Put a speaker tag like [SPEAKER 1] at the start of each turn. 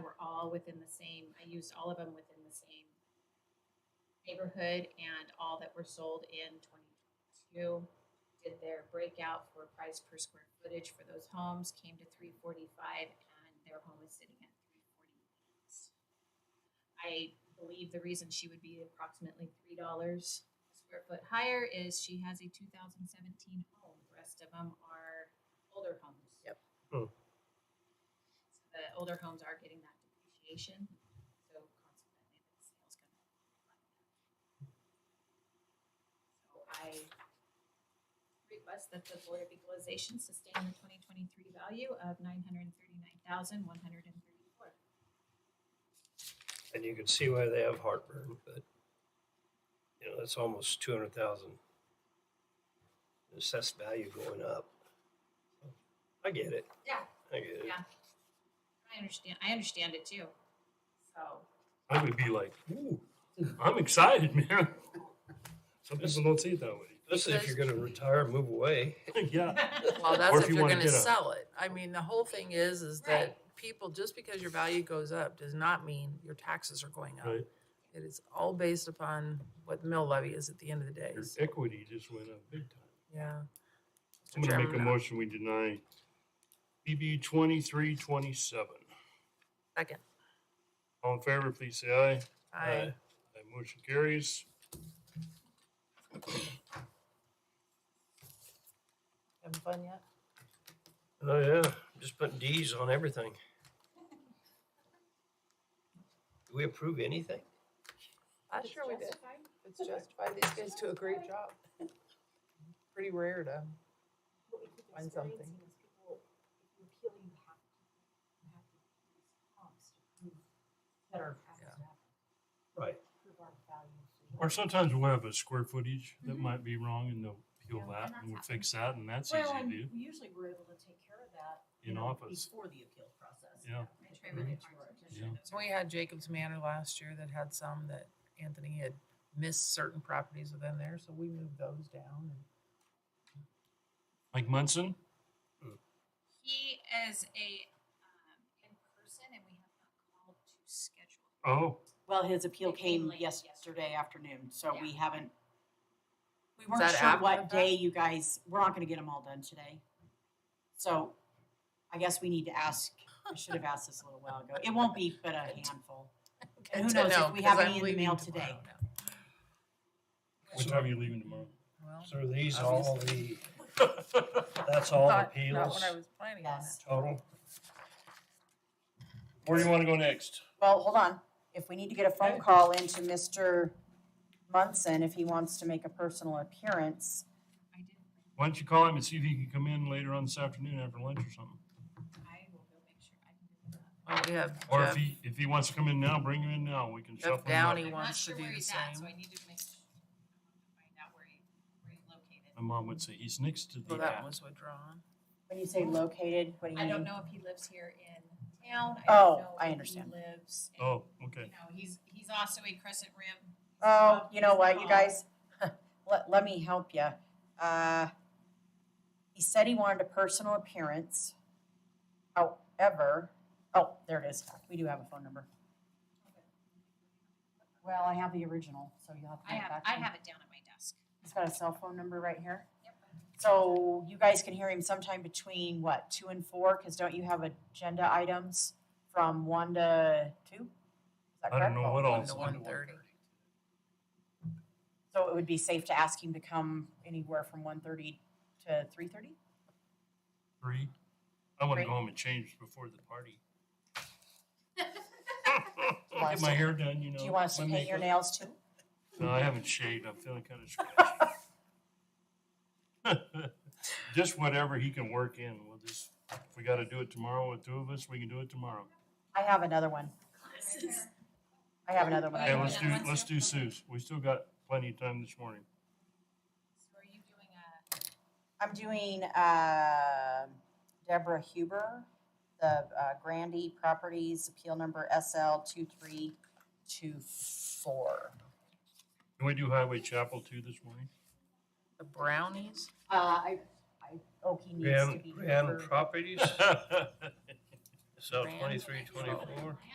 [SPEAKER 1] all within the same, I used all of them within the same neighborhood and all that were sold in twenty twenty-two. Did their breakout for price per square footage for those homes, came to three forty-five and their home is sitting at three forty-eight. I believe the reason she would be approximately three dollars a square foot higher is she has a two thousand seventeen home. The rest of them are older homes.
[SPEAKER 2] Yep.
[SPEAKER 3] Hmm.
[SPEAKER 1] So the older homes are getting that depreciation, so consequently the sales gonna reflect that. So I request that the Board of Equalization sustain the twenty twenty-three value of nine hundred and thirty-nine thousand, one hundred and thirty-four.
[SPEAKER 3] And you can see why they have heartburn, but you know, that's almost two hundred thousand assessed value going up. I get it.
[SPEAKER 1] Yeah.
[SPEAKER 3] I get it.
[SPEAKER 1] Yeah. I understand, I understand it too, so.
[SPEAKER 3] I would be like, ooh, I'm excited, man. Some people don't see it that way. Listen, if you're gonna retire, move away.
[SPEAKER 4] Yeah,
[SPEAKER 2] Well, that's
[SPEAKER 4] Or
[SPEAKER 2] if
[SPEAKER 4] if you
[SPEAKER 2] you're
[SPEAKER 4] wanna
[SPEAKER 2] gonna
[SPEAKER 4] get a-
[SPEAKER 2] sell it. I mean, the whole thing is, is that people, just because your value goes up does not mean your taxes are going up.
[SPEAKER 4] right.
[SPEAKER 2] It is all based upon what the mill levy is at the end of the day.
[SPEAKER 4] Your
[SPEAKER 2] so,
[SPEAKER 4] equity just went up big time.
[SPEAKER 2] Yeah. Mr.
[SPEAKER 4] I'm gonna make a
[SPEAKER 2] Chairman, uh,
[SPEAKER 4] motion, we deny BB twenty-three twenty-seven.
[SPEAKER 2] Second.
[SPEAKER 4] All in favor, please say aye. uh,
[SPEAKER 2] I,
[SPEAKER 4] That motion carries.
[SPEAKER 2] having fun yet?
[SPEAKER 3] Oh yeah, just putting D's on everything. Do we approve anything?
[SPEAKER 2] I sure we did. It's justified. These guys do a great job. Pretty rare to,
[SPEAKER 5] what we keep
[SPEAKER 2] Find something.
[SPEAKER 5] experiencing is people, if you appeal, you have to, you have to use comps to prove that our taxes
[SPEAKER 2] Yeah.
[SPEAKER 5] have
[SPEAKER 3] Right.
[SPEAKER 5] prove our value.
[SPEAKER 4] Or sometimes we'll have a square footage that might be wrong and they'll peel
[SPEAKER 5] Mm-hmm. Yeah,
[SPEAKER 4] that
[SPEAKER 5] and
[SPEAKER 4] and we'll
[SPEAKER 5] that's
[SPEAKER 4] fix that and that's easy
[SPEAKER 5] Well,
[SPEAKER 4] to
[SPEAKER 5] and
[SPEAKER 4] do.
[SPEAKER 5] usually we're able to take care of that.
[SPEAKER 4] In office.
[SPEAKER 5] Before the appeal process.
[SPEAKER 4] Yeah.
[SPEAKER 1] I try really hard to measure
[SPEAKER 4] Yeah.
[SPEAKER 1] those.
[SPEAKER 2] so we had Jacob's Manor last year that had some that Anthony had missed certain properties within there, so we moved those down. and-
[SPEAKER 4] Like Munson,
[SPEAKER 1] He is a, um, in person and we have not called to schedule.
[SPEAKER 4] oh,
[SPEAKER 5] Well, his appeal
[SPEAKER 1] It came
[SPEAKER 5] came
[SPEAKER 1] late yesterday.
[SPEAKER 5] yesterday afternoon, so
[SPEAKER 1] Yeah.
[SPEAKER 5] we haven't, we
[SPEAKER 2] that
[SPEAKER 5] weren't sure
[SPEAKER 2] after
[SPEAKER 5] what
[SPEAKER 2] the
[SPEAKER 5] day you guys, we're not gonna get them all done today. So I guess we need to ask, I should have asked this a little while ago. It won't be but a handful. And who
[SPEAKER 2] Good to
[SPEAKER 5] knows if
[SPEAKER 2] know,
[SPEAKER 5] we
[SPEAKER 2] 'cause
[SPEAKER 5] have
[SPEAKER 2] I'm
[SPEAKER 5] any in the
[SPEAKER 2] leaving
[SPEAKER 5] mail
[SPEAKER 2] tomorrow
[SPEAKER 5] today.
[SPEAKER 2] now.
[SPEAKER 4] what time are you leaving tomorrow?
[SPEAKER 2] Well,
[SPEAKER 3] So are these all the, that's all
[SPEAKER 2] not, not
[SPEAKER 3] appeals
[SPEAKER 2] what I was planning on.
[SPEAKER 5] Yes.
[SPEAKER 3] total?
[SPEAKER 4] Where do you wanna go next?
[SPEAKER 5] Well, hold on. If we need to get a phone call into Mr. Munson, if he wants to make a personal appearance,
[SPEAKER 1] I didn't,
[SPEAKER 4] Why don't you call him and see if he can come in later on this afternoon after lunch or something?
[SPEAKER 1] I will go make sure I can do that.
[SPEAKER 2] Well, we have
[SPEAKER 4] Or if
[SPEAKER 2] Jeff-
[SPEAKER 4] he, if he wants to come in now, bring him in now, we can
[SPEAKER 2] Jeff
[SPEAKER 4] shuffle him
[SPEAKER 2] Downey. He
[SPEAKER 4] up.
[SPEAKER 1] I'm not
[SPEAKER 2] wants to
[SPEAKER 1] sure
[SPEAKER 2] do
[SPEAKER 1] where
[SPEAKER 2] the
[SPEAKER 1] he's at, so
[SPEAKER 2] same.
[SPEAKER 1] I need to make, sure- I want to find out where he, where he's located.
[SPEAKER 4] My mom would say, he's next to the
[SPEAKER 2] Well, that
[SPEAKER 4] app."
[SPEAKER 2] was withdrawn.
[SPEAKER 5] when you say located, what do you
[SPEAKER 1] I
[SPEAKER 5] mean?
[SPEAKER 1] don't know if he lives here in town. I
[SPEAKER 5] Oh,
[SPEAKER 1] don't know
[SPEAKER 5] I
[SPEAKER 1] if he
[SPEAKER 5] understand.
[SPEAKER 1] Lives. in-
[SPEAKER 4] Oh,
[SPEAKER 1] You
[SPEAKER 4] okay.
[SPEAKER 1] know, he's, he's also a Crescent Rim.
[SPEAKER 5] Oh, you know what, you
[SPEAKER 1] Oh.
[SPEAKER 5] guys, let, let me help you. Uh, he said he wanted a personal appearance. However, oh, there it is. We do have a phone number. Well, I have the original, so you'll have to
[SPEAKER 1] I
[SPEAKER 5] get it
[SPEAKER 1] have,
[SPEAKER 5] back.
[SPEAKER 1] I
[SPEAKER 5] to me.
[SPEAKER 1] have it down at my desk.
[SPEAKER 5] He's got a cell phone number right here.
[SPEAKER 1] Yep.
[SPEAKER 5] So you guys can hear him sometime between what, two and four? Because don't you have agenda items from one to two? Is that
[SPEAKER 4] I don't
[SPEAKER 5] correct? Oh,
[SPEAKER 4] know what
[SPEAKER 2] One
[SPEAKER 4] else.
[SPEAKER 2] to one thirty.
[SPEAKER 5] So it would be safe to ask him to come anywhere from one thirty to three thirty?
[SPEAKER 4] Three. I wanna
[SPEAKER 5] Three.
[SPEAKER 4] go home and change before the party.
[SPEAKER 5] want
[SPEAKER 4] Get
[SPEAKER 5] us
[SPEAKER 4] my
[SPEAKER 5] to-
[SPEAKER 4] hair done, you know.
[SPEAKER 5] Do you want us to
[SPEAKER 4] my
[SPEAKER 5] paint your
[SPEAKER 4] makeup.
[SPEAKER 5] nails too?
[SPEAKER 4] No, I haven't shaved. I'm feeling kind of scratchy. just whatever he can work in. We'll just, if we got to do it tomorrow with two of us, we can do it tomorrow.
[SPEAKER 5] I have another one. I have another one.
[SPEAKER 1] Well,
[SPEAKER 4] Hey,
[SPEAKER 1] Okay,
[SPEAKER 5] I
[SPEAKER 4] let's
[SPEAKER 1] yeah,
[SPEAKER 4] do,
[SPEAKER 1] let's
[SPEAKER 4] let's
[SPEAKER 1] do-
[SPEAKER 4] do Sue's. We still got plenty of time this morning.
[SPEAKER 1] So are you doing a?
[SPEAKER 5] I'm doing, uh, Deborah Huber, the, uh, Grandy Properties, appeal number SL two three two four.
[SPEAKER 4] Can we do Highway Chapel too this morning?
[SPEAKER 2] The brownies?
[SPEAKER 5] Uh, I, I, oh, he needs to
[SPEAKER 3] Grand,
[SPEAKER 5] be.
[SPEAKER 3] Grand
[SPEAKER 5] here for-
[SPEAKER 3] Properties, so twenty-three, twenty-four.